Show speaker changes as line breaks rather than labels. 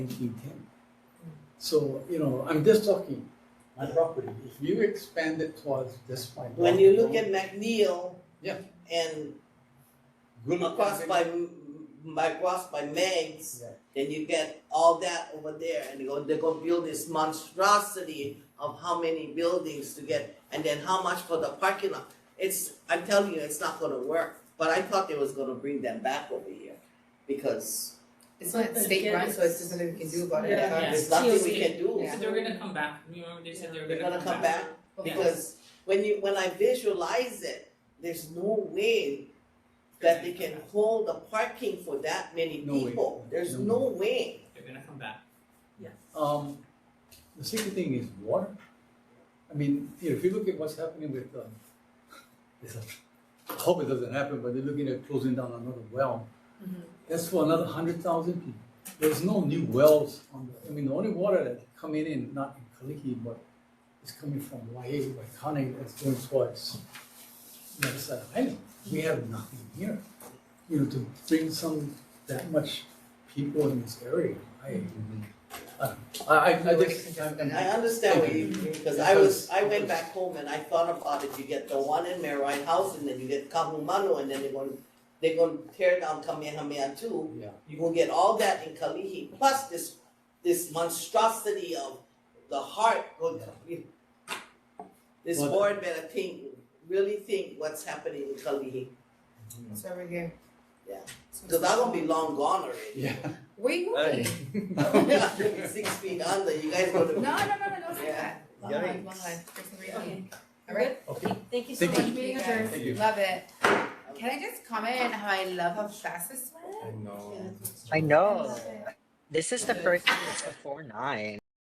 nineteen ten. So, you know, I'm just talking, my property, if you expand it towards this my
When
block,
you look at McNeil.
Yeah.
And
good
across
living-
by, by, across by Meg's,
Yeah.
then you get all that over there and they go, they go build this monstrosity of how many buildings to get and then how much for the parking lot. It's, I'm telling you, it's not gonna work, but I thought they was gonna bring them back over here because
It's not state run, so it's just nothing we can do about it.
Yeah.
Uh,
there's
Yeah.
nothing we
TLC.
can do.
Yeah.
So they're gonna come back, remember they said they were
They're
gonna come back?
Because when you, when I visualize it, there's no way that they can hold a parking for that many
No way.
people. There's
No.
no way.
They're gonna come back.
Um, the second thing is water. I mean, you know, if you look at what's happening with, um, it's a- I hope it doesn't happen, but they're looking at closing down another well. That's for another hundred thousand people. There's no new wells on the, I mean, the only water that's coming in, not in Kaliki, but it's coming from Waihe, Waikane, that's going towards the other side of the island. We have nothing here, you know, to bring some, that much people in this area. I, I, I, I just, I'm,
And
I'm-
I understand what you, because I was, I went back home and I thought about it, you get the one in Marai House and then you get Kahumanu and then they're gonna, they're gonna tear down Kamehameha too.
yeah.
You will get all that in Kalihi, plus this, this monstrosity of the heart. go- This
Well,
board better think, really think what's happening in Kalihi,
It's over here.
Yeah. because I'm gonna be long gone already.
Yeah.
Where you going?
I'm gonna be Six feet under, you guys gonna
No,
be.
no, no, no, no, say
Yeah.
that. Long line, long line, for some reason. All right?
Okay,
Thank you so
Thank
much,
you.
meeting
Thank
adjourned.
thank you.
Love it. Can I just comment how I love how fast this went?
I know.
I know.
Love it.
This is the
Yeah.
first before nine.